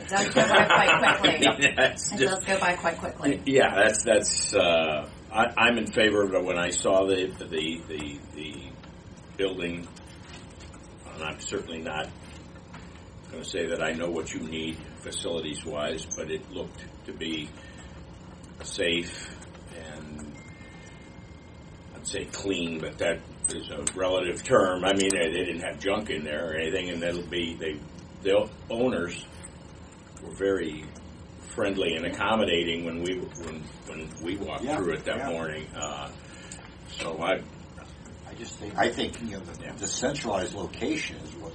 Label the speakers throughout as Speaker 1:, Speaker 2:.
Speaker 1: It does go by quite
Speaker 2: I
Speaker 1: quickly.
Speaker 2: mean, that's
Speaker 1: It
Speaker 2: just-
Speaker 1: does go by quite quickly.
Speaker 2: Yeah, that's that's. Uh, I, I'm in favor of it. When I saw the the the, the building, and I'm certainly not going to say that I know what you need facilities wise, but it looked to be safe and I'd say clean, but that is a relative term. I mean, they, they didn't have junk in there or anything, and that'll be they the owners were very friendly and accommodating when we when, when we walked
Speaker 3: Yeah,
Speaker 2: through it that
Speaker 3: yeah.
Speaker 2: morning. Uh, so I
Speaker 3: I just think, I think, you know, the,
Speaker 2: Yeah.
Speaker 3: the centralized location is what.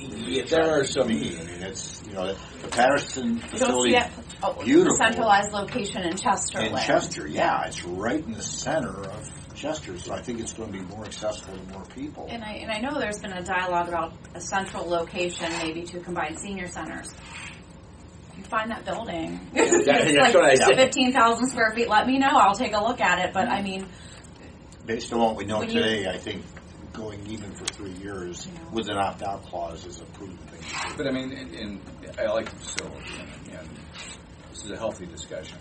Speaker 2: Yeah, there are some-
Speaker 3: I mean, it's, you know, the Patterson
Speaker 1: You'll see
Speaker 3: facility
Speaker 1: it. oh,
Speaker 3: beautiful.
Speaker 1: Centralized location in
Speaker 3: in
Speaker 1: Chesterland.
Speaker 3: Chester, yeah, it's right in the center of Chester, so I think it's going to be more accessible to more people.
Speaker 1: And I, and I know there's been a dialogue about a central location, maybe to combine senior centers. If you find that building,
Speaker 2: that's
Speaker 1: it's like
Speaker 2: what I said.
Speaker 1: fifteen thousand square feet, let me know, I'll take a look at it, but I mean,
Speaker 3: Based on what we know
Speaker 1: When you-
Speaker 3: today, I think going even for three years
Speaker 1: Yeah.
Speaker 3: with an opt-out clause is a prudent thing to do.
Speaker 4: But I mean, and, and I like the facility, and, and this is a healthy discussion.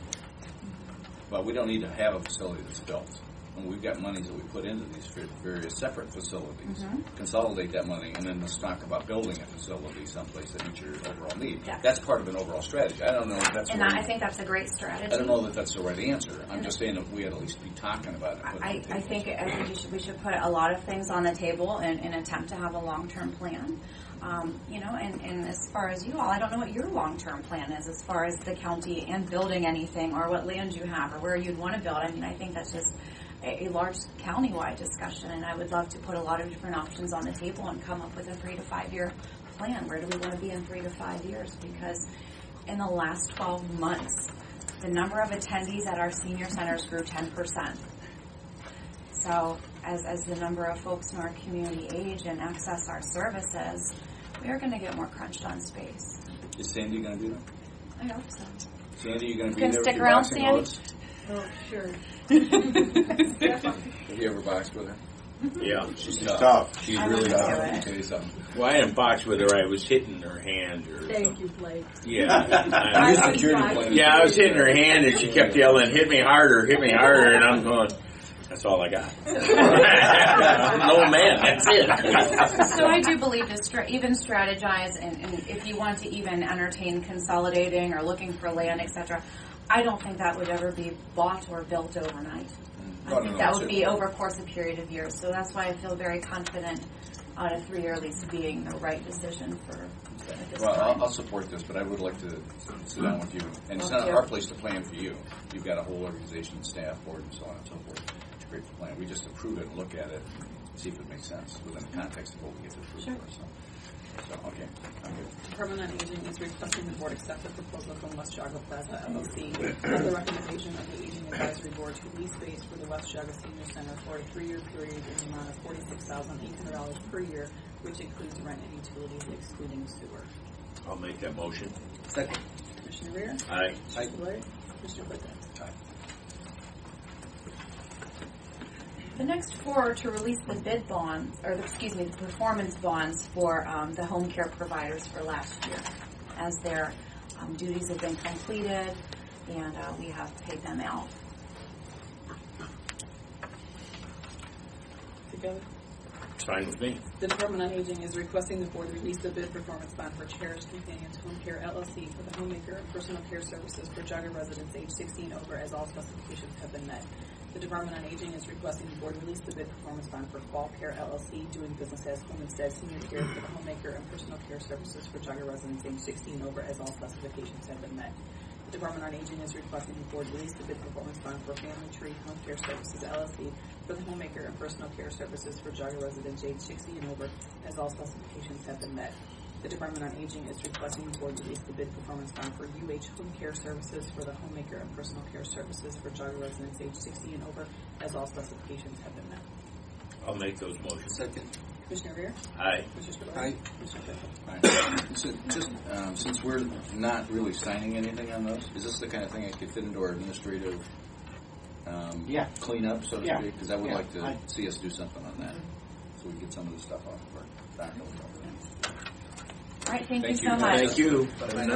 Speaker 4: But we don't need to have a facility that's built. And we've got monies that we put into these fa- various separate facilities.
Speaker 1: Mm-hmm.
Speaker 4: Consolidate that money, and then let's talk about building a facility someplace that meets your overall need.
Speaker 1: Yeah.
Speaker 4: That's part of an overall strategy. I don't know if that's.
Speaker 1: and
Speaker 4: the
Speaker 1: that, I
Speaker 4: right-
Speaker 1: think that's a great strategy.
Speaker 4: I don't know that that's the right answer. I'm just saying that we had at least be talking about it. and putting
Speaker 1: I,
Speaker 4: it on
Speaker 1: I
Speaker 4: the
Speaker 1: think I think you should, we should put a lot of things on the table and, and attempt to have a long-term plan. Um, you know, and, and as far as you all, I don't know what your long-term plan is as far as the county and building anything or what land you have or where you'd want to build. I mean, I think that's just a, a large county-wide discussion and I would love to put a lot of different options on the table and come up with a three to five-year plan. Where do we want to be in three to five years? Because in the last twelve months, the number of attendees at our senior centers grew ten percent. So as, as the number of folks in our community age and access our services, we are going to get more crunched on space.
Speaker 4: table. Is Sandy going to be there?
Speaker 1: I hope so.
Speaker 4: Sandy, you going to be
Speaker 1: Gonna
Speaker 4: there with
Speaker 1: stick
Speaker 4: your
Speaker 1: around,
Speaker 4: boxing
Speaker 1: Sandy?
Speaker 4: gloves?
Speaker 5: Oh, sure.
Speaker 4: Have you ever boxed with her?
Speaker 2: yeah.
Speaker 4: She's
Speaker 3: It's tough.
Speaker 2: She's
Speaker 1: I
Speaker 2: really
Speaker 1: wouldn't
Speaker 2: tough.
Speaker 1: do it.
Speaker 4: Tell you something.
Speaker 2: Well, I didn't box with her. I was hitting her hand or
Speaker 5: Thank
Speaker 2: something.
Speaker 5: you, Blake.
Speaker 2: Yeah.
Speaker 5: I
Speaker 2: I-
Speaker 5: was
Speaker 4: security
Speaker 5: like-
Speaker 4: blanket.
Speaker 2: yeah, I was hitting her hand and she kept yelling, hit me harder, hit me harder. And I'm going, that's all I got. I'm an old man. That's it.
Speaker 1: So I do believe to stra- even strategize and, and if you want to even entertain consolidating or looking for land, etc. I don't think that would ever be bought or built overnight.
Speaker 4: No,
Speaker 1: I
Speaker 4: no,
Speaker 1: think
Speaker 4: no,
Speaker 1: that would be
Speaker 4: certainly.
Speaker 1: over a course of period of years. So that's why I feel very confident on a three-year lease being the right decision for at this
Speaker 4: Well,
Speaker 1: time.
Speaker 4: I'll, I'll support this, but I would like to sit down with you, and it's
Speaker 1: Love
Speaker 4: not
Speaker 1: to.
Speaker 4: our place to plan for you. You've got a whole organization, staff, board, and so on and so forth. It's great to plan. We just approve it, look at it, see if it makes sense within the context of what we get to approve
Speaker 6: Sure.
Speaker 4: for. So, so okay, I'm good.
Speaker 6: Department on Aging is requesting the board accept the proposal from West Jago Plaza LLC for the recommendation of the Aging Advisory Board to lease space for the West Jago Senior Center for a three-year period in the amount of forty-six thousand eight hundred dollars per year, which includes rent and utilities excluding sewer.
Speaker 2: I'll make that motion.
Speaker 4: Second.
Speaker 6: Commissioner Rea?
Speaker 2: I,
Speaker 4: Aye.
Speaker 6: Commissioner Blair? Commissioner Whitten?
Speaker 1: The next four are to release the bid bonds, or the- excuse me, the performance bonds for um, the home care providers for last year, as their um, duties have been completed and uh, we have paid them out.
Speaker 6: Together.
Speaker 2: it's fine with me.
Speaker 6: The Department on Aging is requesting the board release the bid performance bond for Cherished Companions Home Care LLC for the homemaker and personal care services for Jogga residents age 16 over as all specifications have been met. The Department on Aging is requesting the board release the bid performance bond for Fall Care LLC doing business as Home Instead Senior Care for the homemaker and personal care services for Jogga residents age 16 over as all specifications have been met. The Department on Aging is requesting the board release the bid performance bond for Family Tree Home Care Services LLC for the homemaker and personal care services for Jogga residents age 60 and over, as all specifications have been met. The Department on Aging is requesting the board release the bid performance bond for UH Home Care Services for the homemaker and personal care services for Jogga residents age 60 and over, as all specifications have been met.
Speaker 2: I'll make those motions.
Speaker 4: Second.
Speaker 6: Commissioner Rea?
Speaker 2: I,
Speaker 6: Commissioner Spudler?
Speaker 4: Aye.
Speaker 6: Commissioner Claypool?
Speaker 4: So just, um, since we're not really signing anything on those, is this the kind of thing that could fit into our administrative um,
Speaker 3: Yeah.
Speaker 4: cleanup, so to
Speaker 3: Yeah.
Speaker 4: speak? Because I would
Speaker 3: Yeah,
Speaker 4: like to
Speaker 3: I-
Speaker 4: see us do something on that, so we can get some of this stuff off of our back.
Speaker 1: All right, thank you
Speaker 4: Thank you.
Speaker 1: so much.
Speaker 4: Thank
Speaker 2: you.